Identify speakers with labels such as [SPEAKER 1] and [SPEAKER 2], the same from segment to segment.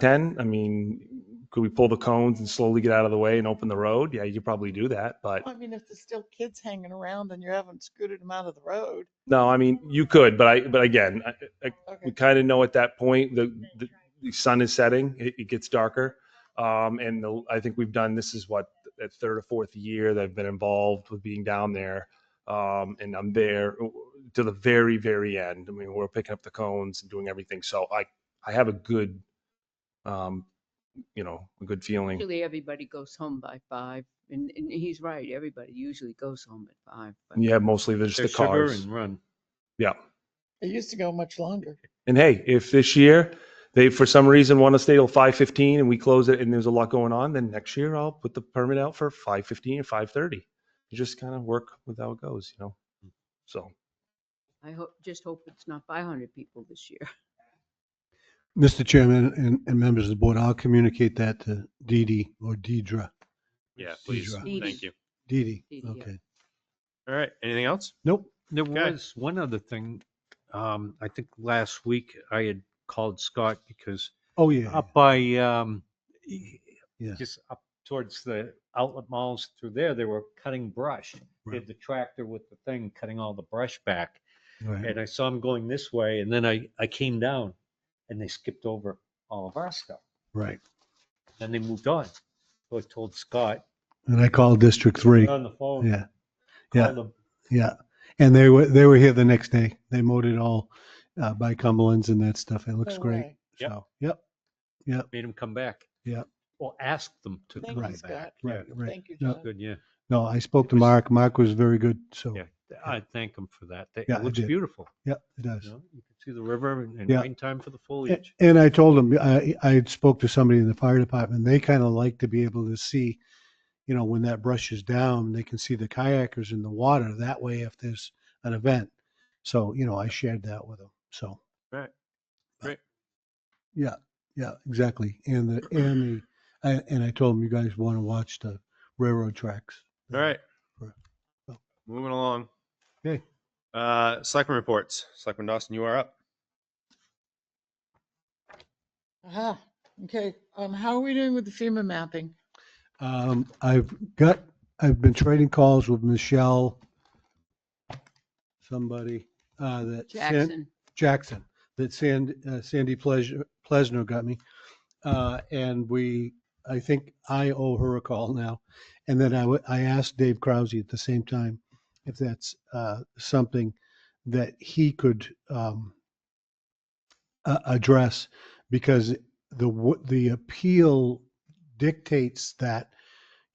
[SPEAKER 1] 10? I mean, could we pull the cones and slowly get out of the way and open the road? Yeah, you could probably do that, but
[SPEAKER 2] I mean, if there's still kids hanging around and you haven't scooted them out of the road.
[SPEAKER 1] no, I mean, you could, but I, but again, I, I, we
[SPEAKER 2] Okay.
[SPEAKER 1] kind of know at that point, the, the, the sun is setting, it, it gets darker. Um, and the, I think we've done, this is what, that third or fourth year that I've been involved with being down there. Um, and I'm there to the very, very end. I mean, we're picking up the cones and doing everything. So I, I have a good, um, you know, a good feeling.
[SPEAKER 3] Usually everybody goes home by five, and, and he's right, everybody usually goes home at five. but-
[SPEAKER 1] Yeah, mostly there's the
[SPEAKER 4] There's sugar
[SPEAKER 1] cars.
[SPEAKER 4] and run.
[SPEAKER 2] It used to go much longer.
[SPEAKER 1] And hey, if this year they for some reason want to stay till five fifteen and we close it and there's a lot going on, then next year I'll put the permit out for five fifteen and five thirty. You just kind of work with how it goes, you know. So,
[SPEAKER 3] I hope, just hope it's not five hundred people this year.
[SPEAKER 5] Mr. Chairman and, and members of the board, I'll communicate that to Dee Dee or Deidra.
[SPEAKER 4] Yeah, please.
[SPEAKER 5] Deidre.
[SPEAKER 3] Dee
[SPEAKER 4] Thank
[SPEAKER 3] Dee.
[SPEAKER 4] you.
[SPEAKER 5] Dee Dee,
[SPEAKER 3] Dee Dee, yeah.
[SPEAKER 5] okay.
[SPEAKER 4] All right. Anything else?
[SPEAKER 5] Nope.
[SPEAKER 6] There
[SPEAKER 4] Okay.
[SPEAKER 6] was one other thing. Um, I think last week I had called Scott because
[SPEAKER 5] Oh, yeah.
[SPEAKER 6] up by, um, e-
[SPEAKER 5] Yeah.
[SPEAKER 6] just up towards the outlet malls through there, they were cutting brush. They
[SPEAKER 5] Right.
[SPEAKER 6] had the tractor with the thing, cutting all the brush back.
[SPEAKER 5] Right.
[SPEAKER 6] And I saw them going this way and then I, I came down and they skipped over all of our stuff.
[SPEAKER 5] Right.
[SPEAKER 6] Then they moved on. So I told Scott
[SPEAKER 5] And I called District Three.
[SPEAKER 6] on the phone.
[SPEAKER 5] Yeah, yeah.
[SPEAKER 6] called him,
[SPEAKER 5] yeah. And they were, they were here the next day. They mowed it all uh, by Cumberland's and that stuff. It looks
[SPEAKER 2] No
[SPEAKER 5] great.
[SPEAKER 2] way.
[SPEAKER 6] Yep.
[SPEAKER 5] So, yep. Yep.
[SPEAKER 6] Made him come back.
[SPEAKER 5] Yeah.
[SPEAKER 6] Or asked them to
[SPEAKER 2] Thank
[SPEAKER 6] come
[SPEAKER 2] you,
[SPEAKER 5] Right.
[SPEAKER 2] Scott.
[SPEAKER 6] back.
[SPEAKER 5] Right, right.
[SPEAKER 2] Thank you,
[SPEAKER 5] No,
[SPEAKER 2] John.
[SPEAKER 6] Good, yeah.
[SPEAKER 5] No, I spoke to Mark. Mark was very good. So,
[SPEAKER 6] Yeah, th- I thank him for that. That-
[SPEAKER 5] Yeah,
[SPEAKER 6] It
[SPEAKER 5] I
[SPEAKER 6] looks
[SPEAKER 5] did.
[SPEAKER 6] beautiful.
[SPEAKER 5] yeah, it
[SPEAKER 6] You
[SPEAKER 5] does.
[SPEAKER 6] know, you can see the river and- and
[SPEAKER 5] Yeah.
[SPEAKER 6] in time for the
[SPEAKER 5] A-
[SPEAKER 6] foliage.
[SPEAKER 5] And I told them, I, I had spoke to somebody in the fire department, they kind of like to be able to see, you know, when that brush is down, they can see the kayakers in the water. That way, if there's an event. So, you know, I shared that with them. So.
[SPEAKER 4] Right.
[SPEAKER 5] But-
[SPEAKER 4] Right.
[SPEAKER 5] Yeah, yeah, exactly. And the, and the, I- and I told them, you guys want to watch the railroad tracks.
[SPEAKER 4] All right.
[SPEAKER 5] Right. Oh.
[SPEAKER 4] Moving along.
[SPEAKER 5] Okay.
[SPEAKER 4] Uh, Selectmen reports. Selectman Dawson, you are up.
[SPEAKER 2] Aha, Ah, okay. Um, how are we doing with the FEMA mapping?
[SPEAKER 5] Um, I've got, I've been trading calls with Michelle, somebody, uh, that sent,
[SPEAKER 3] Jackson,
[SPEAKER 5] Jackson, that Sand, uh, Sandy Pleasure, Plesner got me. Uh, and we, I think I owe her a call now. And then I, wa- I asked Dave Krause at the same time if that's, uh, something that he could, um, a- address because the, w- the appeal dictates that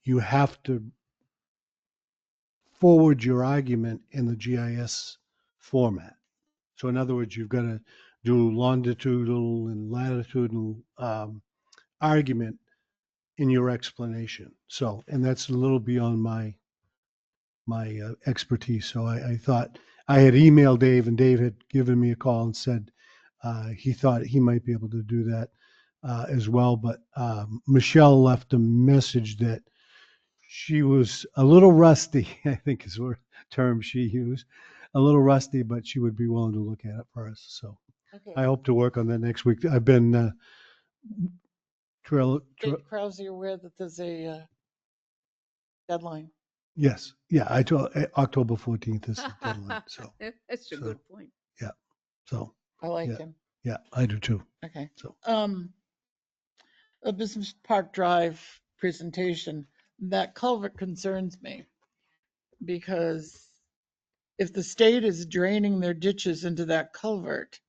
[SPEAKER 5] you have to forward your argument in the GIS format. So in other words, you've got to do longitudinal and latitudinal um, argument in your explanation. So, and that's a little beyond my my uh, expertise. So I, I thought I had emailed Dave, and Dave had given me a call and said uh, he thought he might be able to do that uh, as well. But um, Michelle left a message that she was a little rusty. I think is the term she used a little rusty, but she would be willing to look at it for us. So
[SPEAKER 2] Okay.
[SPEAKER 5] I hope to work on that next week. I've been uh, trail, tra-
[SPEAKER 2] Dave Krause, you aware that there's a uh, deadline?
[SPEAKER 5] yes, yeah. I told uh, October fourteenth is the deadline. So,
[SPEAKER 3] that's a
[SPEAKER 5] so-
[SPEAKER 3] good point.
[SPEAKER 5] so
[SPEAKER 2] I like
[SPEAKER 5] Yeah.
[SPEAKER 2] him.
[SPEAKER 5] yeah, I do too.
[SPEAKER 2] Okay.
[SPEAKER 5] So-
[SPEAKER 2] Um, a Business Park Drive presentation, that culvert concerns me. Because if the state is draining their ditches into that culvert,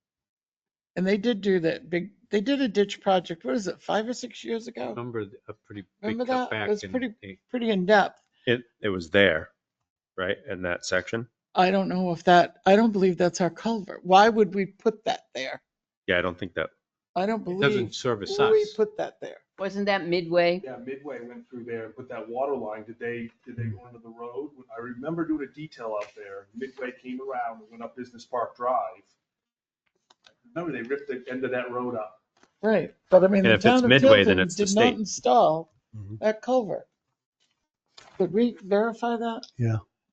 [SPEAKER 2] and they did do that big, they did a ditch project, what is it, five or six years ago?
[SPEAKER 4] Um.
[SPEAKER 6] Remember th- a pretty big
[SPEAKER 2] Remember that? It was
[SPEAKER 6] cutback
[SPEAKER 2] pretty-
[SPEAKER 6] and they-
[SPEAKER 2] Pretty in-depth.
[SPEAKER 4] It, it was there, right? In that section.
[SPEAKER 2] I don't know if that, I don't believe that's our culvert. Why would we put that there?
[SPEAKER 4] Yeah, I don't think that.
[SPEAKER 2] I don't
[SPEAKER 6] it
[SPEAKER 2] believe
[SPEAKER 6] doesn't service
[SPEAKER 2] we
[SPEAKER 6] us.
[SPEAKER 2] put that there.
[SPEAKER 3] Wasn't that midway?
[SPEAKER 1] yeah, Midway went through there and put that water line. Did they did they go under the road? I remember doing a detail out there. Midway came around and went up Business Park Drive. Remember they ripped the end of that road up.
[SPEAKER 2] Right, but I mean,
[SPEAKER 4] And
[SPEAKER 2] the
[SPEAKER 4] if it's
[SPEAKER 2] town of
[SPEAKER 4] Midway, then
[SPEAKER 2] Tilton
[SPEAKER 4] it's the
[SPEAKER 2] did not
[SPEAKER 4] state.
[SPEAKER 2] install
[SPEAKER 5] Mhm.
[SPEAKER 2] that culvert. Could we verify that?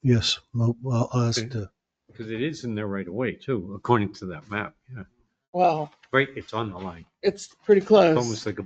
[SPEAKER 5] Yes, well, well, I'll ask
[SPEAKER 6] Okay.
[SPEAKER 5] the-
[SPEAKER 6] Because it is in there right away too, according to that map. Yeah.
[SPEAKER 2] Well,
[SPEAKER 6] Right, it's on the line.
[SPEAKER 7] it's pretty close.
[SPEAKER 2] Almost like a